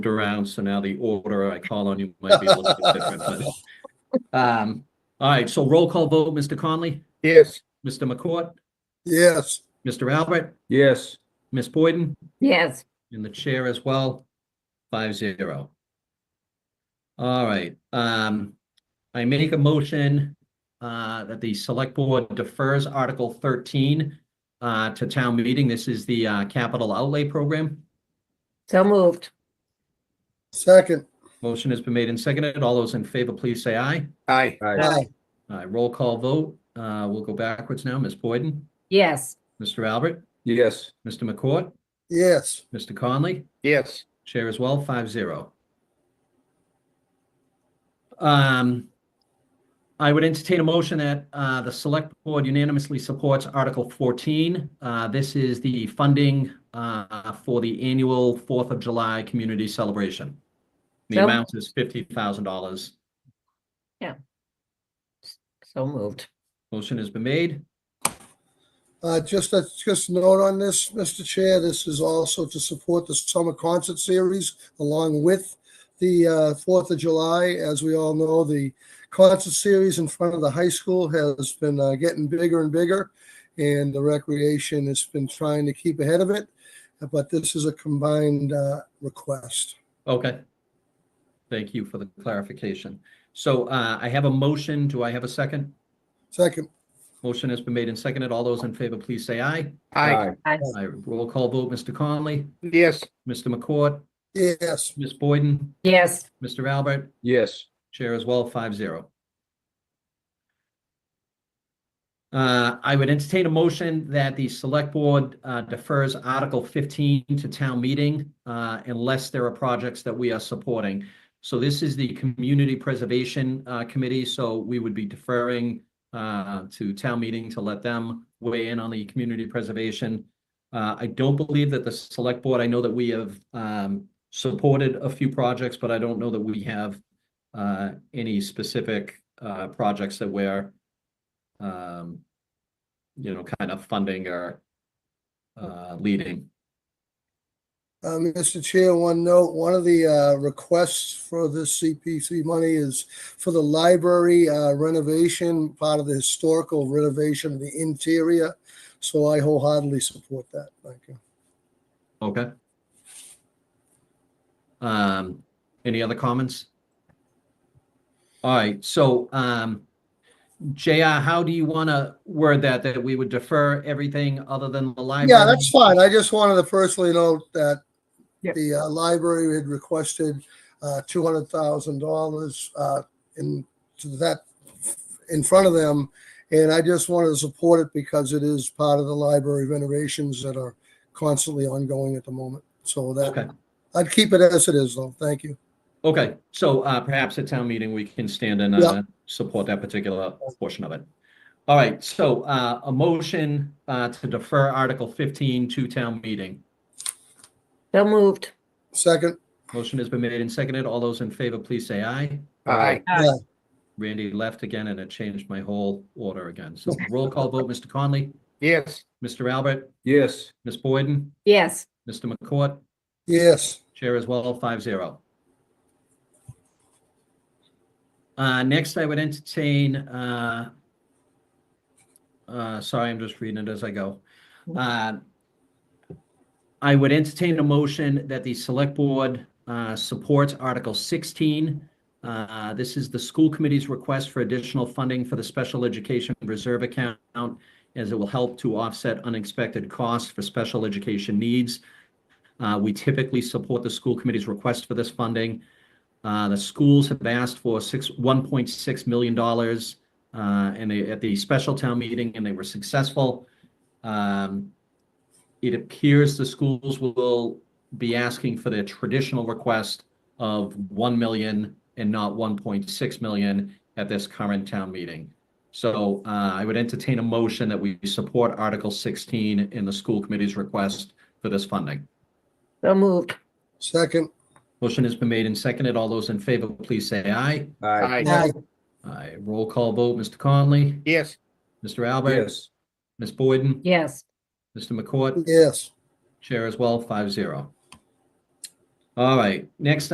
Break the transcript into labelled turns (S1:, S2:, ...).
S1: around, so now the order I call on you might be a little bit different, but. Um, all right, so roll call vote, Mr. Conley,
S2: Yes.
S1: Mr. McCourt,
S2: Yes.
S1: Mr. Albert,
S2: Yes.
S1: Ms. Boyden,
S3: Yes,
S1: and the chair as well, five zero. All right, um, I make a motion uh, that the select board defers Article thirteen uh, to town meeting. This is the uh, capital outlay program.
S3: so moved.
S2: Second.
S1: Motion has been made and seconded. All those in favor, please say aye.
S2: Aye.
S3: Aye.
S1: All right, roll call vote. Uh, We'll go backwards now. Ms. Boyden,
S3: Yes,
S1: Mr. Albert,
S2: Yes.
S1: Mr. McCourt,
S2: Yes.
S1: Mr. Conley,
S2: Yes.
S1: chair as well, five zero. Um, I would entertain a motion that uh, the select board unanimously supports Article 14. Uh, This is the funding uh, for the annual Fourth of July community celebration. The
S3: Yep.
S1: amount is $50,000.
S3: so moved.
S1: Motion has been made.
S2: Uh, just a, just a note on this, Mr. Chair, this is also to support the summer concert series along with the, uh, Fourth of July. As we all know, the concert series in front of the high school has been, uh, getting bigger and bigger. And the recreation has been trying to keep ahead of it, but this is a combined, uh, request.
S1: Okay. Thank you for the clarification. So uh, I have a motion. Do I have a second?
S2: Second.
S1: Motion has been made and seconded. All those in favor, please say aye.
S4: Aye.
S3: Aye.
S1: I roll call vote, Mr. Conley,
S4: Yes.
S1: Mr. McCourt,
S2: Yes.
S1: Ms. Boyden,
S3: Yes,
S1: Mr. Albert,
S4: Yes.
S1: Chair as well, five zero. Uh, I would entertain a motion that the select board uh, defers Article fifteen to town meeting uh, unless there are projects that we are supporting. So this is the Community Preservation uh, Committee, so we would be deferring uh, to town meeting to let them weigh in on the community preservation. Uh, I don't believe that the select board, I know that we have um, supported a few projects, but I don't know that we have uh, any specific uh, projects that we're, um, you know, kind of funding or uh, leading.
S2: Uh, Mr. Chair, one note, one of the uh, requests for this CPC money is for the library uh, renovation, part of the historical renovation of the interior. So I wholeheartedly support that. Thank you.
S1: Okay. Um, any other comments? All right, so, um, JR, how do you want to word that, that we would defer everything other than the library?
S2: Yeah, that's fine. I just wanted to personally note that
S4: Yeah.
S2: the uh, library had requested uh, $200,000 uh, in to that in front of them. And I just wanted to support it because it is part of the library renovations that are constantly ongoing at the moment. So
S1: Okay,
S2: that, I'd keep it as it is though. Thank you.
S1: okay, so, uh, perhaps at town meeting, we can stand and,
S2: Yeah.
S1: uh, support that particular portion of it. All right, so, uh, a motion, uh, to defer Article fifteen to town meeting.
S3: so moved.
S2: Second,
S1: Motion has been made and seconded. All those in favor, please say aye.
S4: Aye.
S2: Aye.
S1: Randy left again and it changed my whole order again. So roll call vote, Mr. Conley,
S4: Yes.
S1: Mr. Albert,
S4: Yes.
S1: Ms. Boyden,
S3: Yes,
S1: Mr. McCourt,
S2: yes,
S1: Chair as well, five zero. Uh, next, I would entertain, uh, uh, sorry, I'm just reading it as I go. Uh, I would entertain a motion that the select board, uh, supports Article sixteen. Uh, this is the school committee's request for additional funding for the special education reserve account as it will help to offset unexpected costs for special education needs. Uh, We typically support the school committee's request for this funding. Uh, The schools have asked for six, $1.6 million uh, and they, at the special town meeting, and they were successful. Um, It appears the schools will be asking for their traditional request of 1 million and not 1.6 million at this current town meeting. So uh, I would entertain a motion that we support Article 16 in the school committee's request for this funding.
S3: so moved.
S2: second,
S1: Motion has been made and seconded. All those in favor, please say aye.
S4: Aye.
S2: aye,
S1: Aye. Roll call vote, Mr. Conley,
S4: Yes.
S1: Mr. Albert,
S4: Yes.
S1: Ms. Boyden,
S3: Yes,
S1: Mr. McCourt,
S2: yes,
S1: Chair as well, five zero. All right, next